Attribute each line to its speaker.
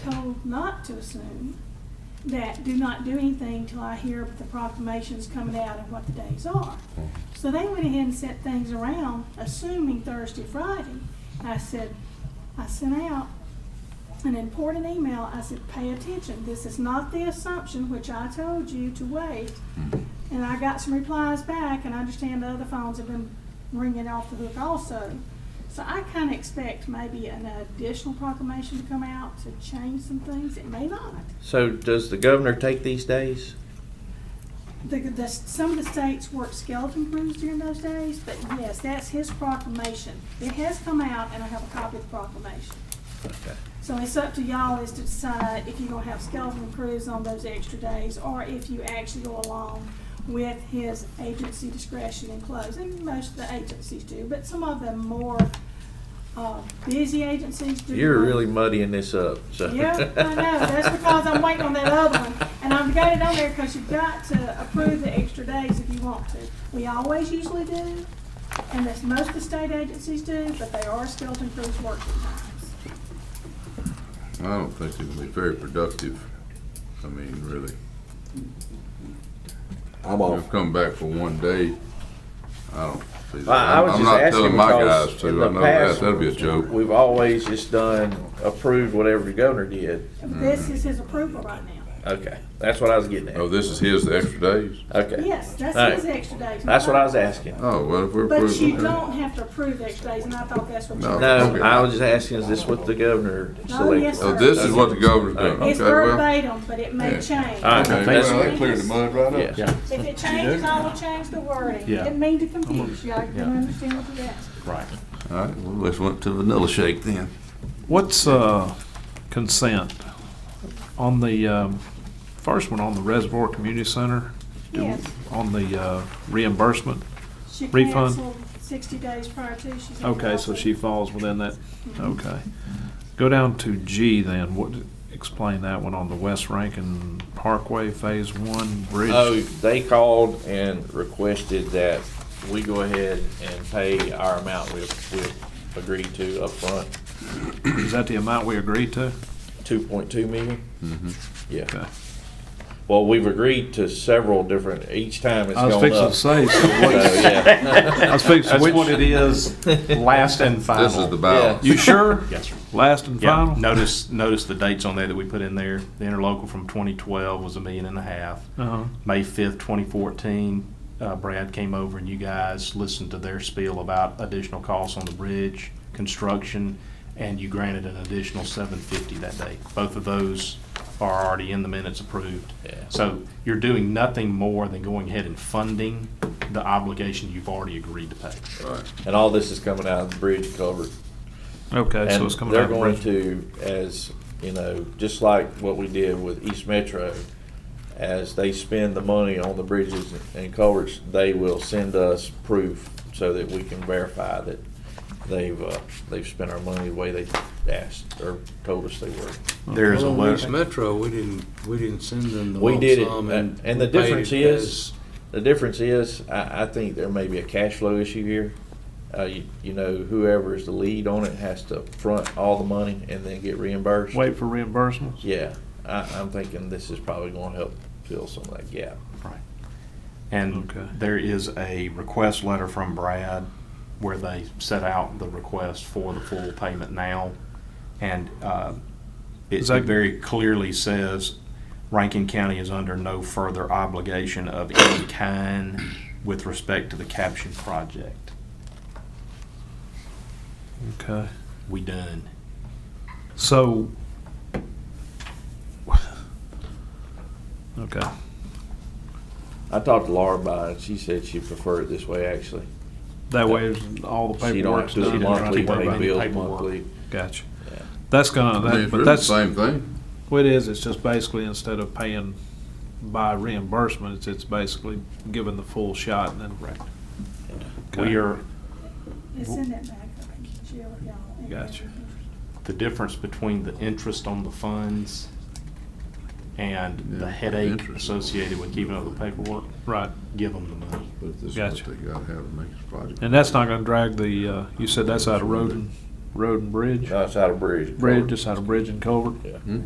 Speaker 1: told not to assume that do not do anything till I hear the proclamations coming out and what the days are. So they went ahead and set things around, assuming Thursday, Friday. I said, I sent out an important email. I said, pay attention. This is not the assumption which I told you to wait. And I got some replies back, and I understand the other phones have been ringing off the hook also. So I kind of expect maybe an additional proclamation to come out to change some things. It may not.
Speaker 2: So does the governor take these days?
Speaker 1: The, the, some of the states work skeleton crews during those days, but yes, that's his proclamation. It has come out, and I have a copy of the proclamation.
Speaker 2: Okay.
Speaker 1: So it's up to y'all is to decide if you're gonna have skeleton crews on those extra days, or if you actually go along with his agency discretion and close, and most of the agencies do, but some of the more, uh, busy agencies do.
Speaker 2: You're
Speaker 1: not.
Speaker 2: really muddying this up, so.
Speaker 1: Yeah, I know, that's because I'm waiting on that other one, and I've got it on there, cause you've got to approve the extra days if you want to. We always usually do, and that's most of the state agencies do, but they are skeleton crews working times.
Speaker 3: I don't think it can be very productive. I mean, really.
Speaker 4: I'm
Speaker 3: You've
Speaker 4: off.
Speaker 3: come back for one day. I don't see that.
Speaker 2: Well, I was just
Speaker 3: I'm- I'm not
Speaker 2: asking
Speaker 3: telling my
Speaker 2: because
Speaker 3: guys
Speaker 2: in
Speaker 3: to.
Speaker 2: the
Speaker 3: I know
Speaker 2: past-
Speaker 3: that. That'd be a joke.
Speaker 2: We've always just done, approved whatever the governor did.
Speaker 1: This is his approval right now.
Speaker 2: Okay, that's what I was getting
Speaker 3: Oh,
Speaker 2: at.
Speaker 3: this is his, the extra days?
Speaker 2: Okay,
Speaker 1: Yes, that's
Speaker 2: All right.
Speaker 1: his extra days.
Speaker 2: that's what I was asking.
Speaker 3: Oh, well, if we're
Speaker 1: But
Speaker 3: approving.
Speaker 1: you don't have to approve extra days, and I thought that's what you.
Speaker 3: No.
Speaker 2: No,
Speaker 3: Okay.
Speaker 2: I was just asking, is this what the governor
Speaker 1: Oh, yes,
Speaker 2: selected?
Speaker 1: sir.
Speaker 3: Oh, this is what the governor's doing.
Speaker 1: It's
Speaker 3: Okay, well.
Speaker 1: verbatim, but it may
Speaker 3: Yeah.
Speaker 1: change.
Speaker 2: All right,
Speaker 3: Okay,
Speaker 2: that's-
Speaker 3: well, that cleared the mud right up.
Speaker 2: Yeah.
Speaker 1: If it changes, I will change the wording.
Speaker 5: Yeah.
Speaker 1: Didn't mean to confuse you, I can understand what you're asking.
Speaker 5: Right.
Speaker 3: All right, well, let's went to vanilla shake then.
Speaker 5: What's uh, consent on the um, first one on the Reservoir Community Center? do-
Speaker 1: Yes.
Speaker 5: On the uh, reimbursement?
Speaker 1: She
Speaker 5: Refund?
Speaker 1: canceled sixty days prior to, she said.
Speaker 5: Okay, so she falls within that. Okay. Go down to G then. What? Explain that one on the West Rankin Parkway Phase One Bridge.
Speaker 2: Oh, they called and requested that we go ahead and pay our amount we, we agreed to upfront,
Speaker 5: Is that the amount we agreed to?
Speaker 2: two point two million? Yeah.
Speaker 5: Mm-hmm. Okay.
Speaker 2: Well, we've agreed to several different, each time it's
Speaker 5: I was
Speaker 2: gone
Speaker 5: fixing
Speaker 2: up.
Speaker 5: to
Speaker 2: So,
Speaker 5: say. So what,
Speaker 2: yeah,
Speaker 5: I was fixing
Speaker 6: That's
Speaker 5: which,
Speaker 6: what it is, last and final.
Speaker 3: This is the balance.
Speaker 5: You sure?
Speaker 6: Yes, sir.
Speaker 5: Last and
Speaker 6: Yeah,
Speaker 5: final.
Speaker 6: notice, notice the dates on there that we put in there. The interlocal from 2012 was a million and a half.
Speaker 5: Uh-huh.
Speaker 6: May 5th, 2014, uh, Brad came over and you guys listened to their spiel about additional costs on the bridge, construction, and you granted an additional 750 that day. Both of those are already in the minutes approved.
Speaker 2: Yeah.
Speaker 6: So you're doing nothing more than going ahead and funding the obligation you've already agreed to pay.
Speaker 2: and all this is coming out of the bridge cover.
Speaker 5: Okay, so
Speaker 2: And
Speaker 5: it's coming
Speaker 2: they're
Speaker 5: out. of the
Speaker 2: going
Speaker 5: bridge.
Speaker 2: to, as, you know, just like what we did with East Metro, as they spend the money on the bridges and culverts, they will send us proof so that we can verify that they've, uh, they've spent our money the way they asked or told us they were.
Speaker 6: There is a
Speaker 7: Well, on
Speaker 6: letter.
Speaker 7: East Metro, we didn't, we didn't send them the
Speaker 2: We
Speaker 7: lump
Speaker 2: did it,
Speaker 7: sum
Speaker 2: and,
Speaker 7: and.
Speaker 2: and the
Speaker 7: we paid
Speaker 2: difference
Speaker 7: it
Speaker 2: is, the difference is, I, I think there may be a cash flow issue here. Uh, you, you know, whoever is the lead on it has to front all the money and then get reimbursed.
Speaker 5: Wait for reimbursements?
Speaker 2: Yeah, I, I'm thinking this is probably gonna help fill some of that gap.
Speaker 6: Right. And
Speaker 5: Okay.
Speaker 6: there is a request letter from Brad where they set out the request for the full payment now. And uh, it
Speaker 5: Is that-
Speaker 6: it very clearly says Rankin County is under no further obligation of any kind with respect to the caption project.
Speaker 5: Okay.
Speaker 6: We done.
Speaker 5: So. Okay.
Speaker 2: I talked to Laura about it, she said she preferred it this way, actually.
Speaker 5: That way, is all the
Speaker 2: She don't have
Speaker 5: paperwork's
Speaker 2: to do
Speaker 5: done.
Speaker 6: doesn't have
Speaker 2: monthly,
Speaker 6: to keep up
Speaker 2: pay
Speaker 6: with
Speaker 2: bills
Speaker 6: paperwork.
Speaker 2: monthly.
Speaker 5: Gotcha.
Speaker 2: Yeah.
Speaker 5: That's gonna,
Speaker 3: I mean,
Speaker 5: that,
Speaker 3: it's
Speaker 5: but
Speaker 3: really the
Speaker 5: that's,
Speaker 3: same thing.
Speaker 5: what it is, it's just basically instead of paying by reimbursement, it's, it's basically giving the full shot and then. Right.
Speaker 6: We are,
Speaker 1: It's in that back, I think, Jill, y'all. and
Speaker 5: Gotcha.
Speaker 1: everything.
Speaker 6: the difference between the interest on the funds and the headache
Speaker 3: interest.
Speaker 6: associated with keeping up with paperwork,
Speaker 5: Right.
Speaker 6: give them the money.
Speaker 3: But this is what
Speaker 5: Gotcha.
Speaker 3: they gotta have to make this project.
Speaker 5: And that's not gonna drag the, uh, you said that's out of road and, road and bridge?
Speaker 2: No, it's out of bridge.
Speaker 5: Bridge, just out of bridge and culvert?
Speaker 2: Yeah.
Speaker 3: Hmm?